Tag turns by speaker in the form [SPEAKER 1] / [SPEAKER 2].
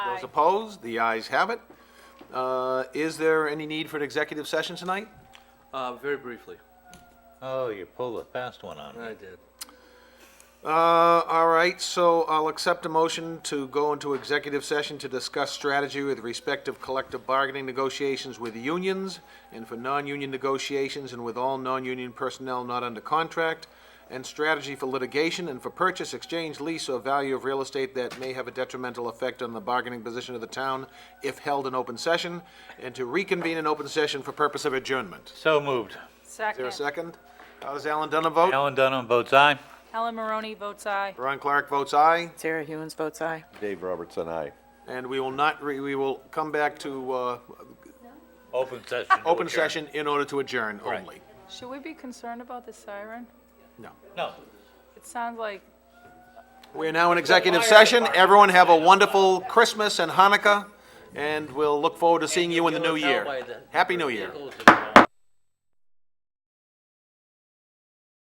[SPEAKER 1] Those opposed, the ayes have it. Uh, Is there any need for an executive session tonight?
[SPEAKER 2] Uh, very briefly.
[SPEAKER 3] Oh, you pulled a fast one on me.
[SPEAKER 2] I did.
[SPEAKER 1] Uh, All right, so I'll accept a motion to go into executive session to discuss strategy with respect of collective bargaining negotiations with unions and for non-union negotiations and with all non-union personnel not under contract, and strategy for litigation and for purchase, exchange, lease, or value of real estate that may have a detrimental effect on the bargaining position of the town if held in open session, and to reconvene in open session for purpose of adjournment.
[SPEAKER 3] So moved.
[SPEAKER 1] Is there a
[SPEAKER 4] Second.
[SPEAKER 1] second? How does Alan Dunham vote?
[SPEAKER 3] Alan Dunham votes aye.
[SPEAKER 4] Helen Maroney votes aye.
[SPEAKER 1] Ron Clark votes aye.
[SPEAKER 5] Sarah Hewens votes aye.
[SPEAKER 6] Dave Robertson, aye.
[SPEAKER 1] And we will not, re- we will come back to uh,
[SPEAKER 3] Open session. to
[SPEAKER 1] open
[SPEAKER 3] adjourn.
[SPEAKER 1] session in order to adjourn only.
[SPEAKER 4] Should we be concerned about the siren?
[SPEAKER 1] No.
[SPEAKER 3] No.
[SPEAKER 4] It sounds like
[SPEAKER 1] We are now in executive session. Everyone have a wonderful Christmas and Hanukkah, and we'll look forward to seeing you in the new
[SPEAKER 2] You'll tell
[SPEAKER 1] year.
[SPEAKER 2] by the
[SPEAKER 1] Happy New Year.
[SPEAKER 2] vehicles that are gone.